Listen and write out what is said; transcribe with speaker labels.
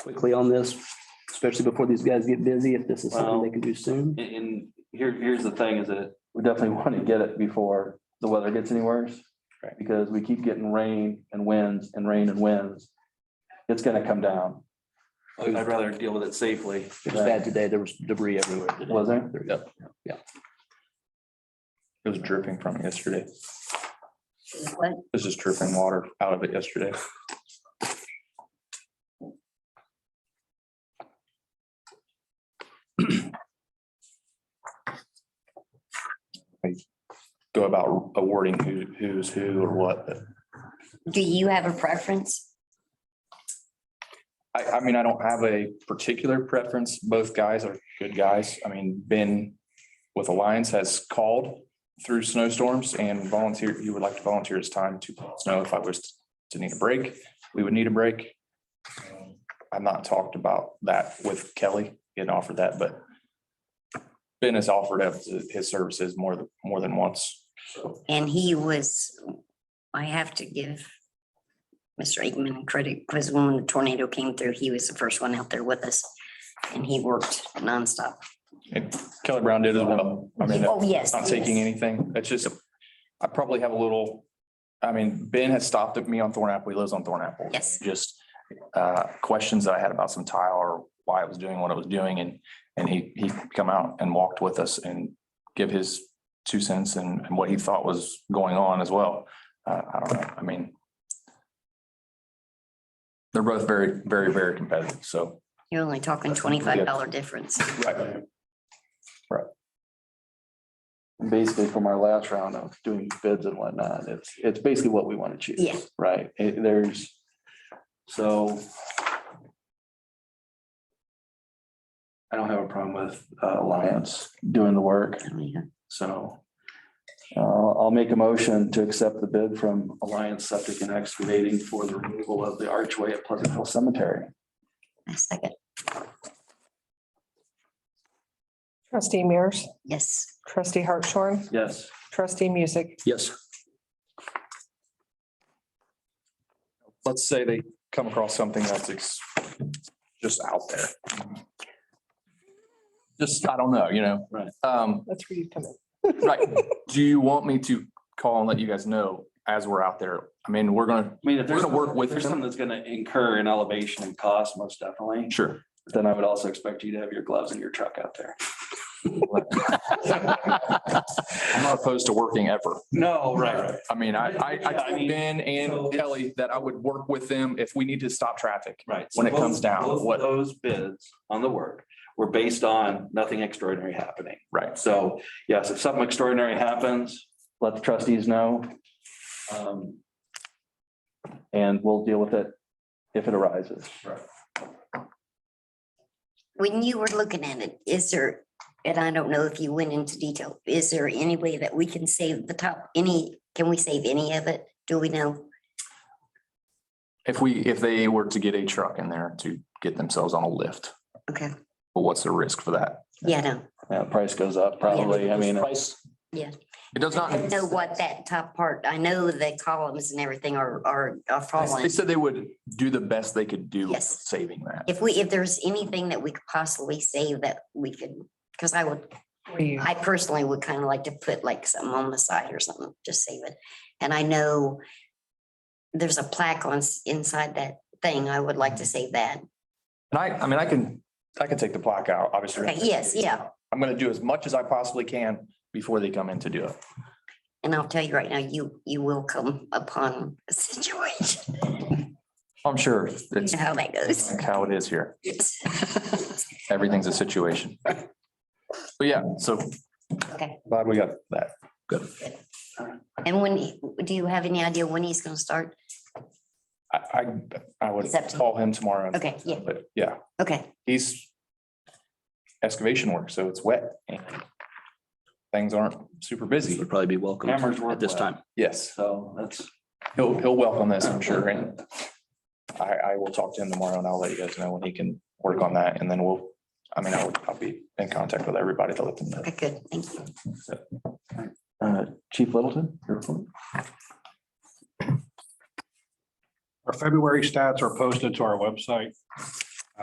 Speaker 1: quickly on this, especially before these guys get busy, if this is something
Speaker 2: Well-
Speaker 1: they can do soon.
Speaker 2: And, and here, here's the thing is that we definitely want to get it before the weather gets any worse.
Speaker 1: Right.
Speaker 2: Because we keep getting rain and winds and rain and winds. It's gonna come down.
Speaker 1: It was
Speaker 2: I'd rather deal with it safely.
Speaker 1: it was bad today. There was debris everywhere today.
Speaker 2: Was there?
Speaker 1: There we go.
Speaker 3: It was dripping from it yesterday.
Speaker 4: What?
Speaker 3: This is dripping water out of it yesterday. I Go about awarding who, who's who or what, but
Speaker 4: Do you have a preference?
Speaker 3: I, I mean, I don't have a particular preference. Both guys are good guys. I mean, Ben with Alliance has called through snowstorms and volunteer, he would like to volunteer his time to plow snow. If I was to need a break, we would need a break. Um, I've not talked about that with Kelly, getting offered that, but Ben has offered up his services more, than more than once.
Speaker 4: And he was, I have to give Mr. Aikman credit because when the tornado came through, he was the first one out there with us. And he worked nonstop.
Speaker 3: Kelly Brown did as well. I mean,
Speaker 4: Oh, yes.
Speaker 3: not taking
Speaker 4: yes.
Speaker 3: anything. It's just, I probably have a little, I mean, Ben has stopped at me on Thornapple. He lives on Thornapple.
Speaker 4: Yes.
Speaker 3: Just uh, questions that I had about some tile or why it was doing what it was doing and, and he, he come out and walked with us and give his two cents and and what he thought was going on as well. Uh, I don't know. I mean, they're both very, very, very competitive. So.
Speaker 4: You're only talking twenty-five dollar difference.
Speaker 3: Right.
Speaker 2: Basically from our last round of doing bids and whatnot, it's, it's basically what we want to choose.
Speaker 4: Yeah.
Speaker 2: Right, It- there's, so. I don't have a problem with uh, Alliance doing the work.
Speaker 4: Oh, yeah.
Speaker 2: So uh, I'll make a motion to accept the bid from Alliance Septic and Excavating for the removal of the archway at Pleasant Hill Cemetery.
Speaker 4: I second.
Speaker 5: Trustee Mears,
Speaker 4: Yes.
Speaker 5: trustee Hartshorn,
Speaker 2: Yes.
Speaker 5: trustee Music,
Speaker 1: Yes.
Speaker 3: let's say they come across something that's ex- just out there. Just, I don't know, you know?
Speaker 2: Right.
Speaker 3: Um,
Speaker 5: that's where you come in.
Speaker 3: right, do you want me to call and let you guys know as we're out there? I mean, we're gonna,
Speaker 2: I mean, if there's
Speaker 3: We're
Speaker 2: a
Speaker 3: gonna work
Speaker 2: work
Speaker 3: with
Speaker 2: with, there's
Speaker 3: them.
Speaker 2: something that's gonna incur an elevation in cost, most definitely,
Speaker 3: sure.
Speaker 2: then I would also expect you to have your gloves and your truck out there.
Speaker 3: I'm not opposed to working ever.
Speaker 2: No, right,
Speaker 3: I mean, I, I, I
Speaker 2: Yeah, I mean,
Speaker 3: told Ben
Speaker 2: so
Speaker 3: and
Speaker 2: it's-
Speaker 3: Kelly that I would work with them if we need to stop traffic.
Speaker 2: right.
Speaker 3: When it comes
Speaker 2: Both-
Speaker 3: down,
Speaker 2: both of
Speaker 3: what-
Speaker 2: Those bids on the work were based on nothing extraordinary happening.
Speaker 3: Right.
Speaker 2: So yes, if something extraordinary happens, let the trustees know. Um, And we'll deal with it if it arises.
Speaker 4: When you were looking at it, is there, and I don't know if you went into detail, is there any way that we can save the top, any, can we save any of it? Do we know?
Speaker 3: If we, if they were to get a truck in there to get themselves on a lift,
Speaker 4: Okay,
Speaker 3: but what's the risk for that?
Speaker 4: yeah, no,
Speaker 2: Yeah, price goes up probably. I mean,
Speaker 3: It does not.
Speaker 4: I don't know what that top part, I know the columns and everything are, are, are
Speaker 3: They
Speaker 4: falling.
Speaker 3: said they would do the best they could do with
Speaker 4: Yes.
Speaker 3: saving that.
Speaker 4: If we, if there's anything that we could possibly save that we could, because I would,
Speaker 5: Where you-
Speaker 4: I personally would kind of like to put like something on the side or something, just save it. And I know there's a plaque on, s- inside that thing, I would like to save that.
Speaker 3: And I, I mean, I can, I can take the plaque out, obviously.
Speaker 4: Okay, yes, yeah.
Speaker 3: I'm gonna do as much as I possibly can before they come in to do it.
Speaker 4: And I'll tell you right now, you, you will come upon a situation,
Speaker 3: I'm sure
Speaker 4: You
Speaker 3: it's
Speaker 4: know how that goes.
Speaker 3: like how it is here.
Speaker 4: Yes.
Speaker 3: Everything's a situation. But yeah, so
Speaker 4: Okay,
Speaker 3: glad we got that.
Speaker 4: and when, he- do you have any idea when he's gonna start?
Speaker 3: I, I, I would
Speaker 4: It's up to-
Speaker 3: call him tomorrow.
Speaker 4: Okay, yeah,
Speaker 3: But yeah,
Speaker 4: okay,
Speaker 3: he's excavation work, so it's wet. and Things aren't super busy.
Speaker 1: Would probably be welcome
Speaker 2: Hammers work
Speaker 1: at this
Speaker 2: well.
Speaker 1: time.
Speaker 3: Yes.
Speaker 2: so that's.
Speaker 3: He'll, he'll welcome this, I'm sure, and I, I will talk to him tomorrow and I'll let you guys know when he can work on that and then we'll, I mean, I'll, I'll be in contact with everybody to let them know.
Speaker 4: okay, good, thank you.
Speaker 2: Uh, Chief Littleton? your report?
Speaker 6: Our February stats are posted to our website.